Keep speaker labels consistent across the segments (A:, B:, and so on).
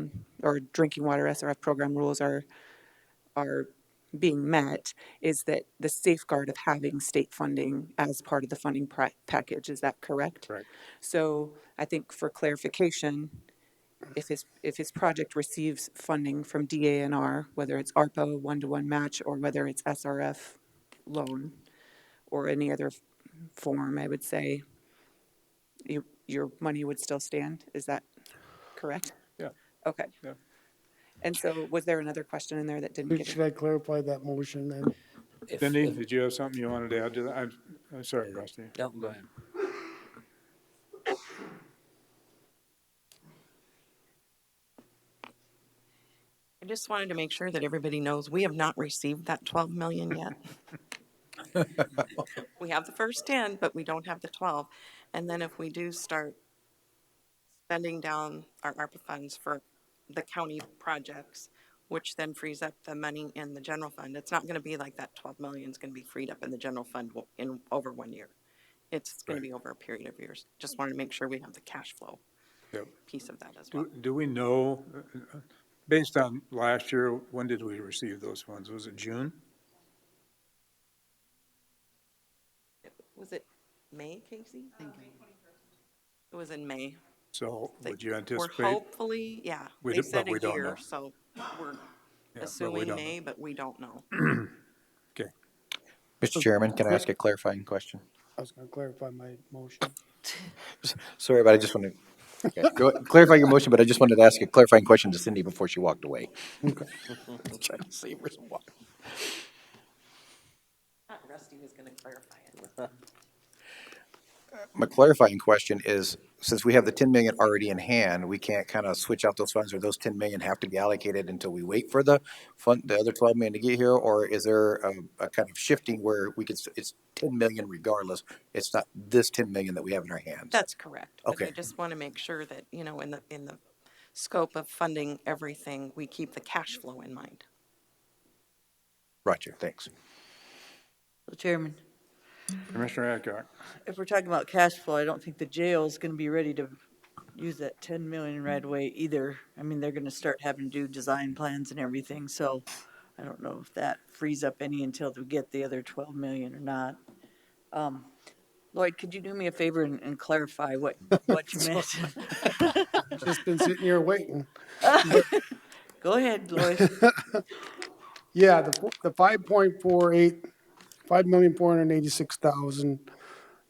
A: um, or drinking water SRF program rules are, are being met is that the safeguard of having state funding as part of the funding pra- package, is that correct?
B: Correct.
A: So I think for clarification, if his, if his project receives funding from DANR, whether it's ARPA one-to-one match or whether it's SRF loan or any other f- form, I would say, your, your money would still stand, is that correct?
B: Yeah.
A: Okay.
B: Yeah.
A: And so was there another question in there that didn't get?
C: Should I clarify that motion then?
D: If-
B: Cindy,
D: if-
B: did you have something you wanted to add to that? I'm, I'm sorry, Rusty.
D: No, go ahead.
E: I just wanted to make sure that everybody knows we have not received that 12 million yet. We have the first 10, but we don't have the 12. And then if we do start spending down our ARPA funds for the county projects, which then frees up the money in the general fund, it's not going to be like that 12 million is going to be freed up in the general fund wo- in over one year. It's going to be over a period of years. Just wanted to make sure we have the cash flow
B: Yep.
E: piece of that as well.
B: Do, do we know, uh, uh, based on last year, when did we receive those funds? Was it June?
E: Was it May, Casey? It was in May.
B: So
E: They-
B: would you
E: We're
B: anticipate?
E: hopefully, yeah,
B: We
E: they
B: do- but
E: said
B: we
E: a
B: don't know.
E: year, so we're
B: but we
E: assuming
B: don't know.
E: May, but we don't know.
B: Okay,
F: Mr. Chairman, can I ask a clarifying question?
C: I was gonna clarify my motion.
F: S- Sorry, but I just want to go clarify your motion, but I just wanted to ask a clarifying question to Cindy before she walked away. Trying to save her some water.
E: Rusty was gonna clarify it.
F: My clarifying question is, since we have the ten million already in hand, we can't kind of switch out those funds, or those ten million have to be allocated until we wait for the fund, the other twelve million to get here, or is there a, a kind of shifting where we could, s- it's ten million regardless? It's not this ten million that we have in our hands?
E: That's correct. But I
F: Okay.
E: just wanna make sure that, you know, in the, in the scope of funding everything, we keep the cash flow in mind.
F: Roger, thanks.
G: So, Chairman,
B: Commissioner Adcock,
G: if we're talking about cash flow, I don't think the jail's gonna be ready to use that ten million right away either. I mean, they're gonna start having to do design plans and everything, so I don't know if that frees up any until we get the other twelve million or not. Um, Lloyd, could you do me a favor and, and clarify what, what you meant?
C: Just been sitting here waiting.
G: Go ahead, Lloyd.
C: Yeah, the, fo- the five point four eight, five million four hundred and eighty-six thousand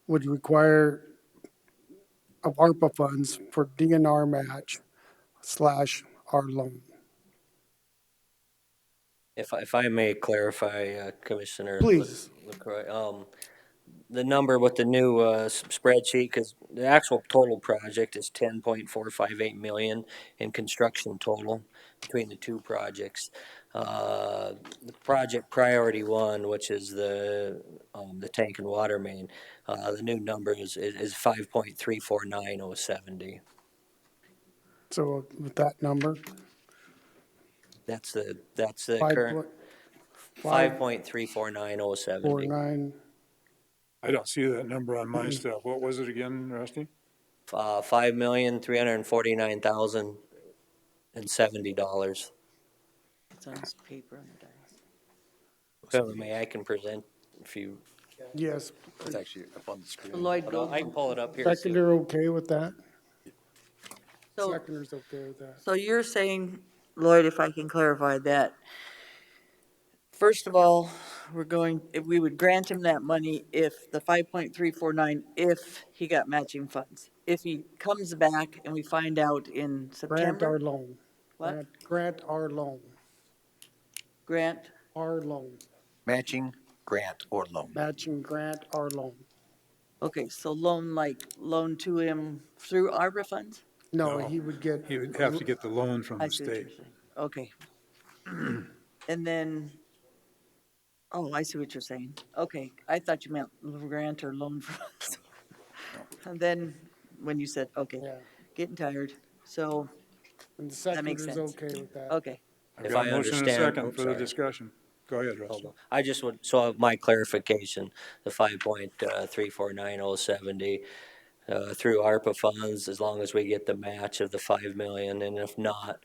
C: would require of ARPA funds for DNR match slash our loan.
D: If, I- if I may clarify, uh, Commissioner. Lec-
C: Please.
D: LaCroy, um, the number with the new, uh, s- spreadsheet, cause the actual total project is ten point four five eight million in construction total between the two projects. Uh, the project priority one, which is the, um, the tank and water main, uh, the new number is, is, is five point three four nine oh seventy.
C: So with that number,
D: That's the, that's the
C: five
D: current,
C: point
D: five point three four nine oh
C: four
D: seventy.
C: nine,
B: I don't see that number on
D: Hmm.
B: my stuff. What was it again, Rusty?
D: uh, five million, three hundred and forty-nine thousand and seventy dollars.
G: It's on his paper on the dice.
D: So may I can present if you,
C: yes.
F: It's actually up on the screen.
G: Lloyd
D: hold on, I
G: Gold,
D: can pull it up here. Sue.
C: Seconder okay with that?
G: so
C: Seconder's okay with that.
G: So you're saying, Lloyd, if I can clarify that, first of all, we're going, if we would grant him that money if the five point three four nine, if he got matching funds. If he comes back and we find out in
C: Grant our
G: September,
C: loan.
G: What?
C: Grant- Grant our loan,
G: grant,
C: our loan,
F: Matching, grant, or loan.
C: matching grant our loan.
G: okay, so loan like, loan to him through ARPA funds?
C: No,
B: No.
C: he would get,
B: You would have to get the loan from
G: I
B: the
G: see what
B: state.
G: you're saying. Okay. And then, oh, I see what you're saying. Okay, I thought you meant grant or loan for us. And then, when you said, okay,
C: yeah,
G: getting tired, so,
C: and the
G: makes
C: seconder's
G: sense.
C: okay with that.
G: okay.
B: I've
D: If
B: got
D: I
B: a motion and a
D: understand-
B: second
D: oops,
B: for the
D: sorry.
B: discussion. Go ahead, Rusty.
D: I just would, so my clarification, the five point uh, three four nine oh seventy, uh, through ARPA funds, as long as we get the match of the five million, and if not,